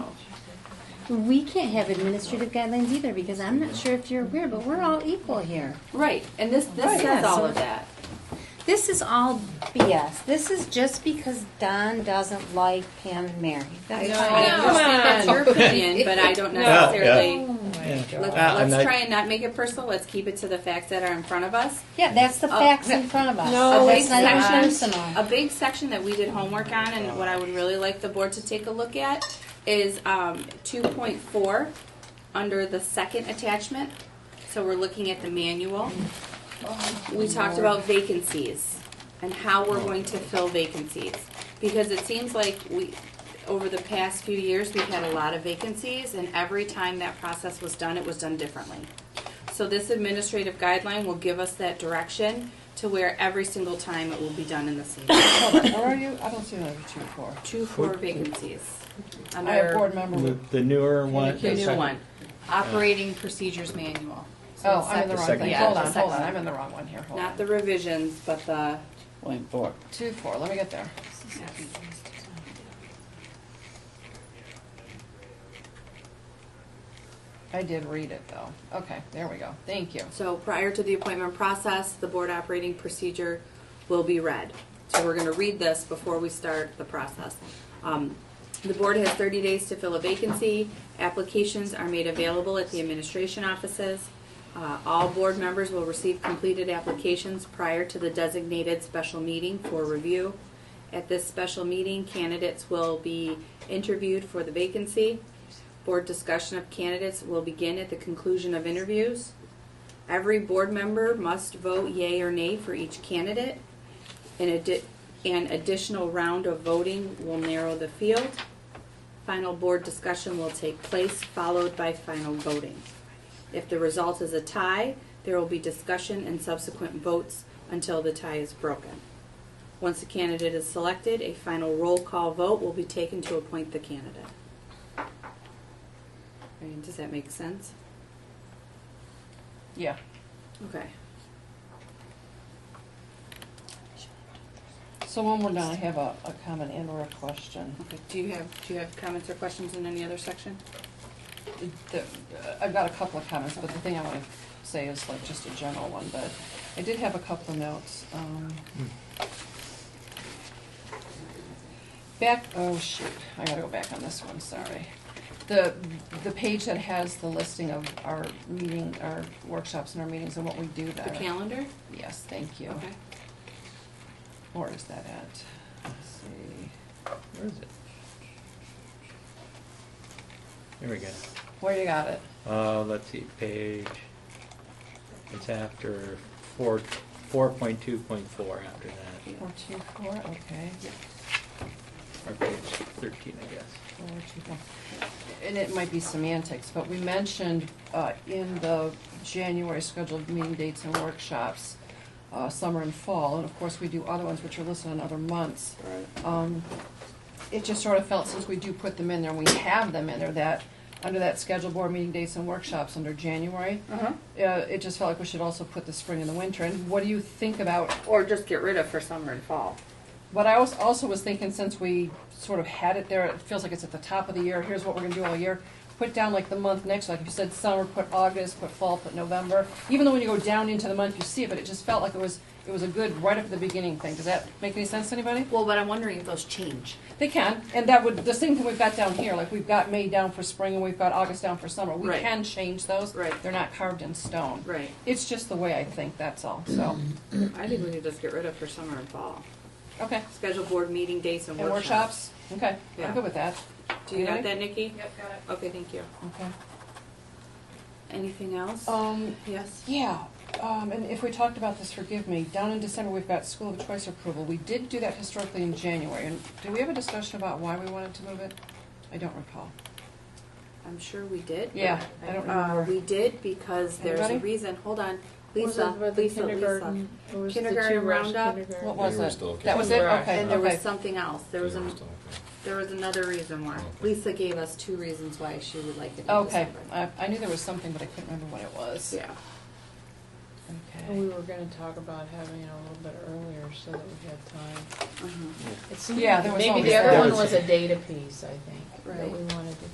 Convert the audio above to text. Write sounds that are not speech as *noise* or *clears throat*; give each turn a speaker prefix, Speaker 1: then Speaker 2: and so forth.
Speaker 1: we can't have administrative guidelines either, because I'm not sure if you're aware, but we're all equal here.
Speaker 2: Right, and this,
Speaker 1: Right.
Speaker 2: this says all of that.
Speaker 1: This is all BS. This is just because Don doesn't like Pam and Mary. That's
Speaker 3: No.
Speaker 1: fine.
Speaker 2: I
Speaker 3: Come
Speaker 2: understand that's your opinion, but I don't
Speaker 3: No.
Speaker 2: necessarily,
Speaker 4: Yeah.
Speaker 2: let's,
Speaker 4: Ah, I'm
Speaker 2: let's
Speaker 4: not-
Speaker 2: try and not make it personal, let's keep it to the facts that are in front of us.
Speaker 1: Yeah, that's the
Speaker 2: Oh,
Speaker 1: facts in front of us.
Speaker 3: no,
Speaker 1: That's not even
Speaker 2: it's
Speaker 1: personal.
Speaker 2: A big section that we did homework on and what I would really like the board to take a look at is um, 2.4 under the second attachment. So we're looking at the manual. We talked about vacancies and how we're going to fill vacancies. Because it seems like we, over the past few years, we've had a lot of vacancies and every time that process was done, it was done differently. So this administrative guideline will give us that direction to where every single time it will be done in the same.
Speaker 3: *coughs*
Speaker 2: way.
Speaker 3: Where are you? I don't see that two four.
Speaker 2: Two for vacancies.
Speaker 3: I have
Speaker 2: Under
Speaker 3: board member.
Speaker 4: The,
Speaker 3: with-
Speaker 4: the newer one.
Speaker 2: the new one, operating procedures manual. So
Speaker 3: Oh,
Speaker 2: it's
Speaker 3: I'm in the
Speaker 2: separate.
Speaker 3: wrong thing.
Speaker 2: Yeah,
Speaker 3: Hold
Speaker 2: it's
Speaker 3: on, hold on.
Speaker 2: separate.
Speaker 3: I'm in the wrong one here. Hold
Speaker 2: Not
Speaker 3: on.
Speaker 2: the revisions, but the,
Speaker 5: Point four.
Speaker 3: Two four. Let me get there. I did read it though. Okay, there we go. Thank you.
Speaker 2: so prior to the appointment process, the board operating procedure will be read. So we're gonna read this before we start the process. Um, The board has thirty days to fill a vacancy. Applications are made available at the administration offices. Uh, All board members will receive completed applications prior to the designated special meeting for review. At this special meeting, candidates will be interviewed for the vacancy. Board discussion of candidates will begin at the conclusion of interviews. Every board member must vote yea or nay for each candidate. An addi- an additional round of voting will narrow the field. Final board discussion will take place, followed by final voting. If the result is a tie, there will be discussion and subsequent votes until the tie is broken. Once a candidate is selected, a final roll call vote will be taken to appoint the candidate. I mean, does that make sense?
Speaker 3: Yeah.
Speaker 2: Okay.
Speaker 3: So when we're done, I have a, a comment and or a question.
Speaker 2: Okay, do you have, do you have comments or questions in any other section?
Speaker 3: The- uh, I've got a couple of comments, but the thing I want to say is like just a general one, but I did have a couple of notes. um, Back, oh shoot, I gotta go back on this one, sorry. The, the page that has the listing of our meeting, our workshops and our meetings and what we do
Speaker 2: The
Speaker 3: there.
Speaker 2: calendar?
Speaker 3: Yes, thank you.
Speaker 2: Okay.
Speaker 3: Where is that at? Let's see.
Speaker 4: Where is it? There we go.
Speaker 3: Where you got it?
Speaker 4: Uh, let's see, page, it's after four, four point two point four after that,
Speaker 3: Four two four, okay.
Speaker 4: or page thirteen, I guess.
Speaker 3: Or what you think. And it might be semantics, but we mentioned uh, in the January scheduled meeting dates and workshops, uh, summer and fall, and of course, we do other ones which are listed in other months. Um, It just sort of felt, since we do put them in there, and we have them in there, that, under that scheduled board meeting dates and workshops under January,
Speaker 2: Uh-huh.
Speaker 3: uh, it just felt like we should also put the spring and the winter. And what do you think about
Speaker 2: Or just get rid of for summer and fall.
Speaker 3: But I was, also was thinking, since we sort of had it there, it feels like it's at the top of the year, here's what we're gonna do all year. Put down like the month next, like if you said summer, put August, put fall, put November. Even though when you go down into the month, you see it, but it just felt like it was, it was a good right up at the beginning thing. Does that make any sense to anybody?
Speaker 2: Well, but I'm wondering if those change.
Speaker 3: They can, and that would, the same thing we've got down here, like we've got May down for spring and we've got August down for summer. We
Speaker 2: Right.
Speaker 3: can change those.
Speaker 2: Right.
Speaker 3: They're not carved in stone.
Speaker 2: *clears throat* Right. Mm-hmm.
Speaker 3: It's just the way I think, that's all, so,
Speaker 2: I think we could just get rid of for summer and fall.
Speaker 3: okay.
Speaker 2: Schedule board meeting dates and
Speaker 3: And
Speaker 2: workshops.
Speaker 3: workshops, okay,
Speaker 2: Yeah.
Speaker 3: I'm good with that.
Speaker 2: Do you got
Speaker 3: Anybody?
Speaker 2: that, Nikki? Yep, got it. Okay, thank you.
Speaker 3: Okay.
Speaker 2: Anything else?
Speaker 3: Um,
Speaker 2: Yes.
Speaker 3: yeah, um, and if we talked about this, forgive me, down in December, we've got school of choice approval. We did do that historically in January, and did we have a discussion about why we wanted to move it? I don't recall.
Speaker 2: I'm sure we did. but
Speaker 3: Yeah, I don't
Speaker 2: Uh,
Speaker 3: remember.
Speaker 2: we did because there's a
Speaker 3: Anybody?
Speaker 2: reason, hold on,
Speaker 6: Was it
Speaker 2: Lisa,
Speaker 6: where
Speaker 2: Lisa,
Speaker 6: the
Speaker 2: Lisa.
Speaker 6: kindergarten- it was the
Speaker 2: Kindergarten
Speaker 6: two rush
Speaker 2: roundup?
Speaker 6: kindergarten.
Speaker 3: What was
Speaker 7: They were
Speaker 3: it?
Speaker 7: still
Speaker 3: That was it?
Speaker 6: okay.
Speaker 3: Okay,
Speaker 2: And there
Speaker 3: okay.
Speaker 2: was something else, there was, an- there was another reason why. Lisa gave us two reasons why she would like it in
Speaker 3: Okay, Uh,
Speaker 2: December.
Speaker 3: I, I knew there was something, but I couldn't remember what it was.
Speaker 2: Yeah.
Speaker 6: And we
Speaker 3: Okay.
Speaker 6: were gonna talk about having it a little bit earlier so that we had time.
Speaker 2: Mhm.
Speaker 6: It seemed
Speaker 3: Yeah,
Speaker 6: like
Speaker 3: there was
Speaker 6: Maybe
Speaker 3: always
Speaker 6: the
Speaker 3: that.
Speaker 6: other one was a data piece, I think, that
Speaker 2: Right.
Speaker 6: we wanted to